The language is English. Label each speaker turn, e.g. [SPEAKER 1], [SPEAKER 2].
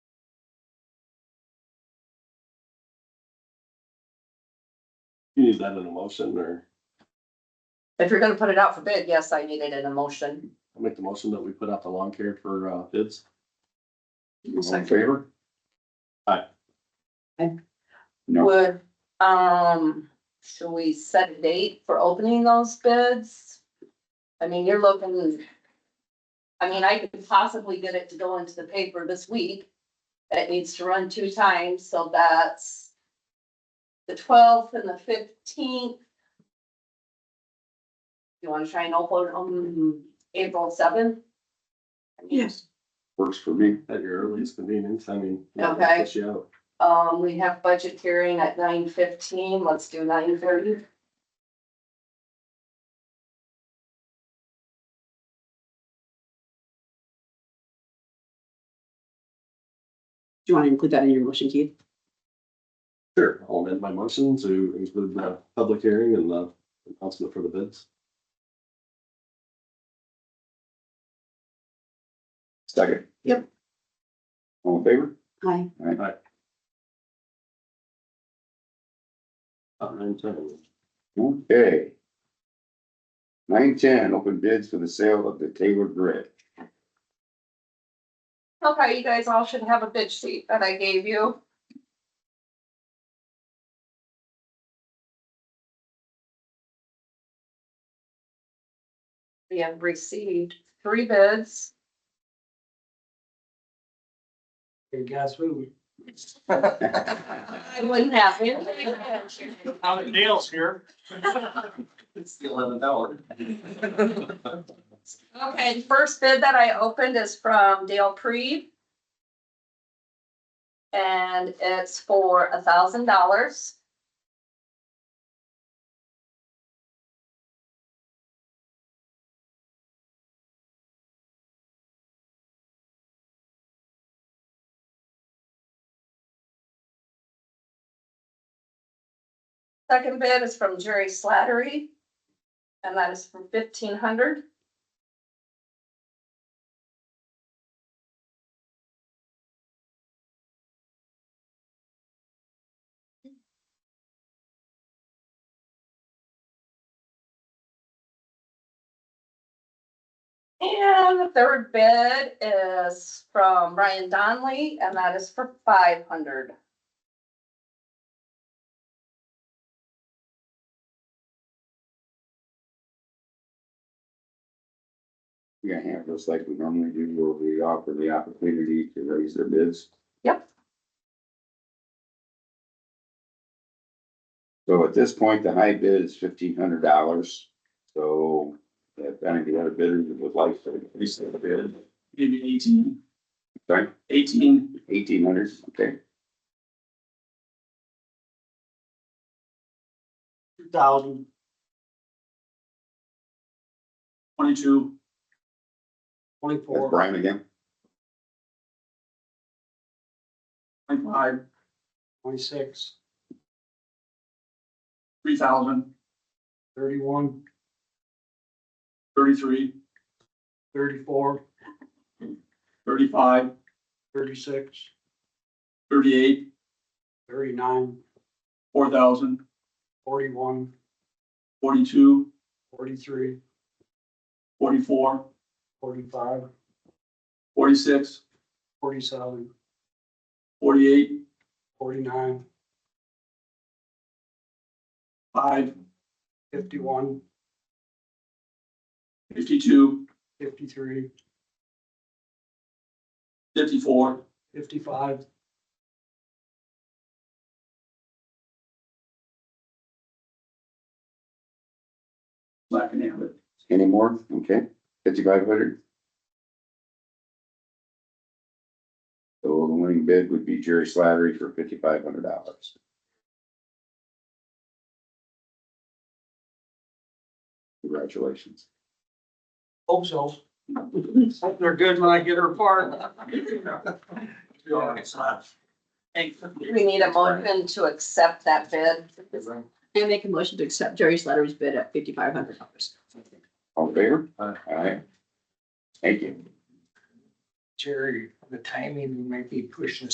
[SPEAKER 1] You need that in a motion or
[SPEAKER 2] If you're gonna put it out for bid, yes, I need it in a motion.
[SPEAKER 1] I'll make the motion that we put out the lawn care for uh bids. All in
[SPEAKER 2] Second.
[SPEAKER 1] favor?
[SPEAKER 3] No.
[SPEAKER 2] Would, um, should we set a date for opening those bids? I mean, you're looking, I mean, I could possibly get it to go into the paper this week. It needs to run two times, so that's the twelfth and the fifteenth. You wanna try and open on April seventh?
[SPEAKER 3] Yes. Works for me.
[SPEAKER 1] At your earliest convenience, I mean.
[SPEAKER 2] Okay.
[SPEAKER 1] Push you out.
[SPEAKER 2] Um, we have budget hearing at nine fifteen, let's do nine thirty.
[SPEAKER 4] Do you want to include that in your motion, Keith?
[SPEAKER 1] Sure, I'll amend my motion to include the public hearing and the announcement for the bids.
[SPEAKER 3] Second.
[SPEAKER 4] Yep.
[SPEAKER 3] All in favor?
[SPEAKER 4] Aye.
[SPEAKER 1] Uh, nine ten.
[SPEAKER 3] Okay. Nine ten, open bids for the sale of the Taylor Bridge.
[SPEAKER 2] Okay, you guys all should have a bid sheet that I gave you. We have received three bids.
[SPEAKER 5] Hey, guess who?
[SPEAKER 2] I wouldn't have it.
[SPEAKER 5] Out of Dale's here.
[SPEAKER 1] It's the eleventh hour.
[SPEAKER 2] Okay, the first bid that I opened is from Dale Preeb. And it's for a thousand dollars. Second bid is from Jerry Slattery. And that is for fifteen hundred. And the third bid is from Ryan Donnelly, and that is for five hundred.
[SPEAKER 3] We're gonna handle this like we normally do, where we offer the opportunity to raise their bids.
[SPEAKER 2] Yep.
[SPEAKER 3] So at this point, the high bid is fifteen hundred dollars, so if any of the other bidders would like to increase their bid,
[SPEAKER 5] Maybe eighteen.
[SPEAKER 3] Sorry?
[SPEAKER 5] Eighteen.
[SPEAKER 3] eighteen hundred, okay?
[SPEAKER 5] Thousand. Twenty-two.
[SPEAKER 3] That's
[SPEAKER 5] Twenty-four,
[SPEAKER 3] Brian again,
[SPEAKER 5] twenty-five. Twenty-six. Three thousand. Thirty-one. Thirty-three. Thirty-four. Thirty-five. Thirty-six. Thirty-eight. Thirty-nine. Four thousand. Forty-one. Forty-two. Forty-three. Forty-four. Forty-five. Forty-six. Forty-seven. Forty-eight. Forty-nine. Five. Fifty-one. Fifty-two. Fifty-three. Fifty-four. Fifty-five. Black and amber.
[SPEAKER 3] any more, okay, fifty-five hundred? So the winning bid would be Jerry Slattery for fifty-five hundred dollars. Congratulations.
[SPEAKER 5] Hope so. Hope they're good when I get her part.
[SPEAKER 2] Do we need a motion to accept that bid?
[SPEAKER 4] I make a motion to accept Jerry Slattery's bid at fifty-five hundred dollars.
[SPEAKER 3] All in favor?
[SPEAKER 1] Aye.
[SPEAKER 3] Alright. Thank you.
[SPEAKER 5] Jerry, the timing might be pushing